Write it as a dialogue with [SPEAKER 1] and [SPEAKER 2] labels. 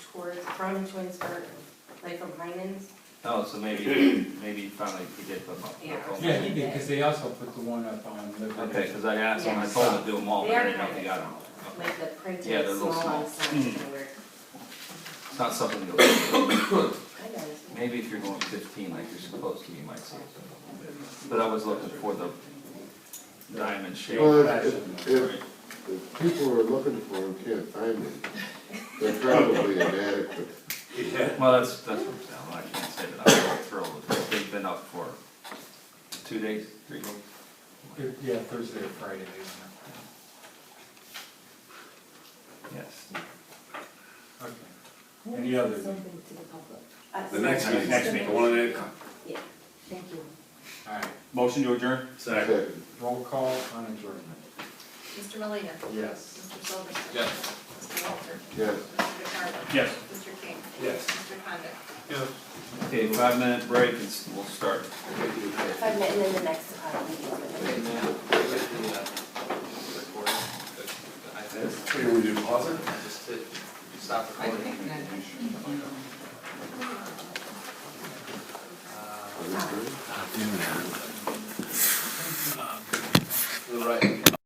[SPEAKER 1] from Twinsburg, like from Heinens.
[SPEAKER 2] Oh, so maybe, maybe finally he did put them up.
[SPEAKER 1] Yeah.
[SPEAKER 3] Yeah, he did, because they also put the one up on
[SPEAKER 2] Okay,
[SPEAKER 3] Liberty.
[SPEAKER 2] cause I asked him, I told him to do them all, but I didn't know if he got them.
[SPEAKER 1] Like the
[SPEAKER 2] Yeah,
[SPEAKER 1] printed
[SPEAKER 2] they're a
[SPEAKER 1] small
[SPEAKER 2] little small.
[SPEAKER 1] ones, not
[SPEAKER 4] Hmm.
[SPEAKER 2] Mm.
[SPEAKER 1] anywhere.
[SPEAKER 2] It's not something you'll,
[SPEAKER 1] I noticed.
[SPEAKER 2] maybe if you're going fifteen like you're supposed to, you might see it. But I was looking for the diamond shape.
[SPEAKER 5] Well,
[SPEAKER 2] Right.
[SPEAKER 5] if, if, if people are looking for them, can't find them, they're probably inadequate.
[SPEAKER 2] Well, that's, that's what I'm saying, I can't say that I'm really thrilled with it. They've been up for two days, three days.
[SPEAKER 3] Thir- Yeah, Thursday or Friday. they went
[SPEAKER 2] Yes.
[SPEAKER 3] up. Okay. Any others? All
[SPEAKER 6] Something to the public.
[SPEAKER 1] Uh,
[SPEAKER 4] The next
[SPEAKER 1] sorry.
[SPEAKER 4] meeting, next meeting, the one that,
[SPEAKER 1] Yeah,
[SPEAKER 6] Thank you.
[SPEAKER 3] right,
[SPEAKER 4] motion to adjourn? Second.
[SPEAKER 5] Second.
[SPEAKER 3] roll call on adjournment.
[SPEAKER 7] Mr. Malina?
[SPEAKER 3] Yes.
[SPEAKER 7] Mr. Silverston?
[SPEAKER 4] Yes.
[SPEAKER 7] Mr. Walter?
[SPEAKER 5] Yes.
[SPEAKER 7] Mr. DeCarlo?
[SPEAKER 4] Yes.
[SPEAKER 7] Mr. King?
[SPEAKER 4] Yes.
[SPEAKER 7] Mr. Condit?
[SPEAKER 2] Okay, five minute break and s- we'll start.
[SPEAKER 1] five minutes, and then the next, uh, meeting.
[SPEAKER 4] Wait, we do pause it?
[SPEAKER 8] Stop recording.
[SPEAKER 5] Are we good?
[SPEAKER 8] To the right.